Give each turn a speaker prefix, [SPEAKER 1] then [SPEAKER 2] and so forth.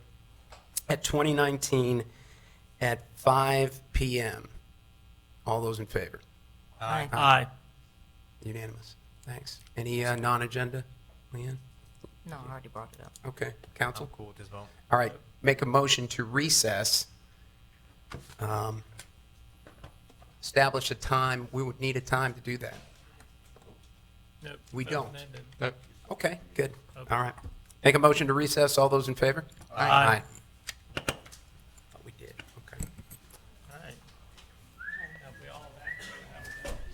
[SPEAKER 1] at 2019 at 5 PM. All those in favor?
[SPEAKER 2] Aye.
[SPEAKER 3] Aye.
[SPEAKER 1] Unanimous. Thanks. Any uh, non-agenda, Leanne?
[SPEAKER 2] No, I already brought it up.
[SPEAKER 1] Okay, council?
[SPEAKER 4] I'm cool with this vote.
[SPEAKER 1] All right, make a motion to recess. Um, Establish a time, we would need a time to do that.
[SPEAKER 3] Nope.
[SPEAKER 1] We don't.
[SPEAKER 3] Nope.
[SPEAKER 1] Okay, good. All right. Make a motion to recess. All those in favor? Oh,
[SPEAKER 3] Aye.